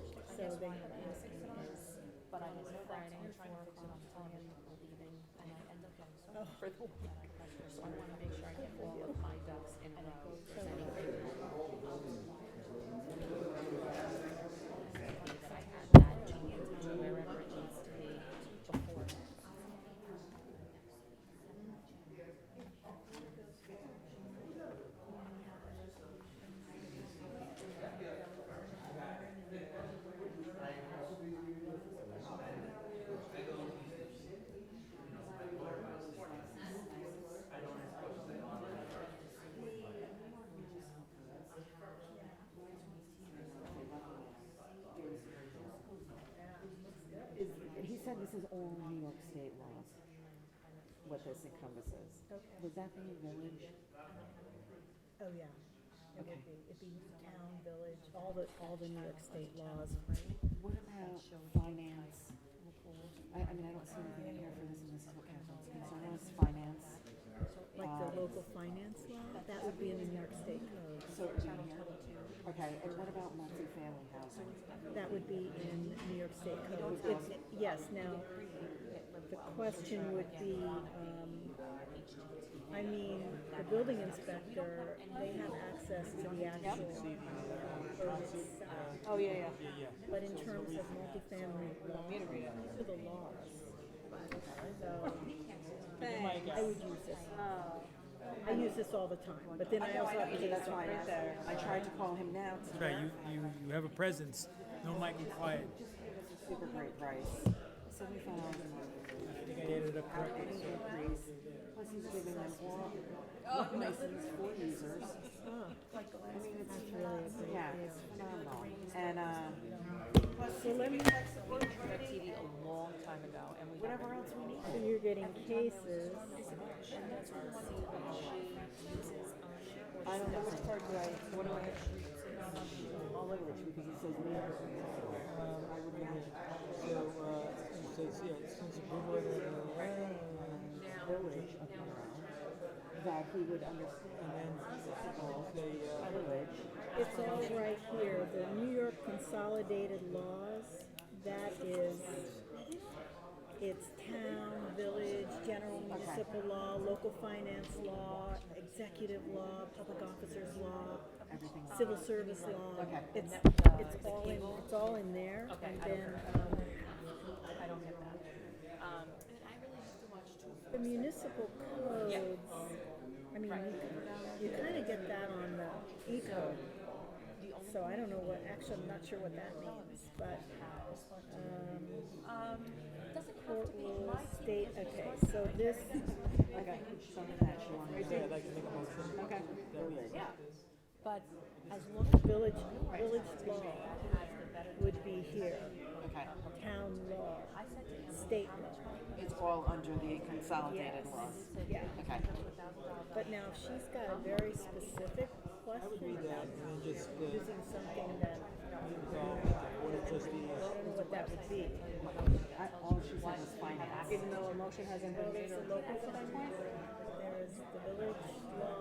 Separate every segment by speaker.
Speaker 1: they had asked me this, but I didn't know that, so I'm trying to fix it on television, we're leaving, and I end up getting so much for the week. So I wanna make sure I get all of my ducks in a row, if there's anything. That I had that to answer to wherever it needs to be before.
Speaker 2: Is, he said this is all New York State laws, what this encompasses. Would that be village?
Speaker 3: Oh, yeah. It
Speaker 2: Okay.
Speaker 3: would be, it'd be town, village, all the, all the New York state laws.
Speaker 2: What about finance? I, I mean, I don't see anything in here for this, and this is what Catherine's concerned with, finance.
Speaker 3: Like the local finance law, that would be in the New York state code.
Speaker 2: So it would be in here? Okay, and what about multifamily housing?
Speaker 3: That would be in New York state code. It- Yes, now, the question would be, um, I mean, the building inspector, they have access to the actual. uh, code itself.
Speaker 2: Oh, yeah, yeah.
Speaker 3: But in terms of multifamily law, to the laws. So, I would use this. I use this all the time, but then I also have to
Speaker 2: That's why I asked. I tried to call him now, it's
Speaker 4: That's right. You, you, you have a presence. No Michael Quiet.
Speaker 2: a super great price. Seventy-five thousand.
Speaker 4: I think I added up correctly.
Speaker 2: Plus he's giving them all, one license for users. I mean, it's really, yeah, it's phenomenal. And, uh,
Speaker 3: So let me,
Speaker 1: TV a long time ago, and we
Speaker 2: Whatever else we need.
Speaker 3: so you're getting cases.
Speaker 2: I don't know which card do I, what do I have? All over it, because it says me. I would have it.
Speaker 5: So, uh, it says, yeah, since the board, uh,
Speaker 2: Village of Monroe. That he would understand.
Speaker 5: they, uh,
Speaker 2: Village.
Speaker 3: It's all right here, the New York Consolidated Laws, that is, it's town, village, general municipal law, local finance law, executive law, public officers law, civil service law.
Speaker 2: Okay.
Speaker 3: It's,
Speaker 1: uh,
Speaker 3: it's all in, it's all in there,
Speaker 1: Okay,
Speaker 3: and
Speaker 1: I don't
Speaker 3: then, um,
Speaker 1: I don't get that. Um, and I really used to watch two.
Speaker 3: the municipal codes, I mean, you, you kinda get that on the eco. So I don't know what, actually, I'm not sure what that means, but, um,
Speaker 1: Um, doesn't have
Speaker 3: Court
Speaker 1: to be
Speaker 3: rules,
Speaker 1: my
Speaker 3: state, okay, so this,
Speaker 2: Okay, so that's you want.
Speaker 5: I'd say I'd like to make a motion.
Speaker 2: Okay. Village.
Speaker 1: Yeah, but as long
Speaker 3: village, village law would be here,
Speaker 2: Okay.
Speaker 3: town law, state law,
Speaker 2: It's all under the consolidated laws.
Speaker 3: yeah.
Speaker 2: Okay.
Speaker 3: But now, if she's got a very specific
Speaker 5: I would
Speaker 3: question
Speaker 5: read that
Speaker 3: about
Speaker 5: and then just, uh, leave
Speaker 3: using something that,
Speaker 5: it all with the board of trustees.
Speaker 3: I don't know what that would be.
Speaker 2: I, all she said was finance.
Speaker 1: even though a motion hasn't been made or.
Speaker 3: There's the village law,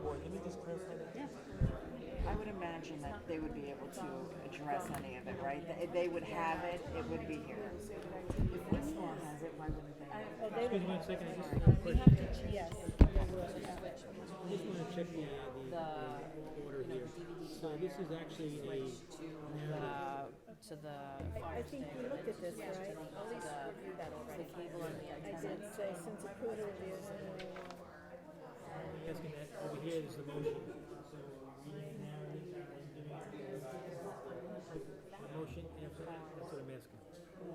Speaker 5: Board, let me just clarify that.
Speaker 2: Yeah. I would imagine that they would be able to address any of it, right? They, they would have it, it would be here. If this law has it, why wouldn't they? have it?
Speaker 3: oh, they
Speaker 4: Excuse
Speaker 3: would,
Speaker 4: me one second. I just,
Speaker 3: yes,
Speaker 4: just want to check the, uh, the, the order here. So this is actually a
Speaker 1: The, to the
Speaker 3: I think we looked at this, right?
Speaker 1: the cable and the
Speaker 3: I
Speaker 1: antenna.
Speaker 3: did say, since Acuda is in
Speaker 4: I'm asking that over here is the motion. So reading the narrative and doing the motion after that. That's what I'm asking.
Speaker 1: You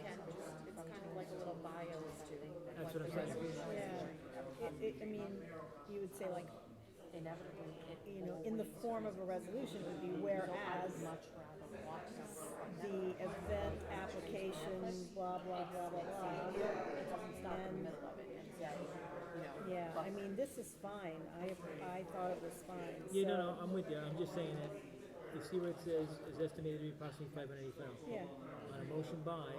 Speaker 1: can, just, it's kind of like a little bio as to
Speaker 4: That's
Speaker 1: what
Speaker 4: what
Speaker 1: the
Speaker 4: I'm saying.
Speaker 1: resolution.
Speaker 3: Yeah, it, it, I mean, you would say like,
Speaker 1: Inevitably, it
Speaker 3: you know, in the form of a resolution would be whereas
Speaker 1: much rather watch this.
Speaker 3: the event application, blah, blah, blah, blah, blah. And,
Speaker 1: Yeah, you know,
Speaker 3: yeah, I mean, this is fine, I, I thought it was fine, so.
Speaker 4: Yeah, no, no, I'm with you. I'm just saying that you see what it says is estimated to be approximately five hundred eighty thousand.
Speaker 3: Yeah.
Speaker 4: On a motion by,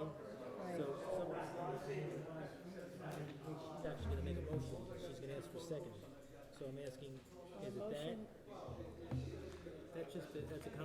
Speaker 4: so someone's gonna, she's actually gonna make a motion, she's gonna ask for a second. So I'm asking, is it that? That's just, a- that's a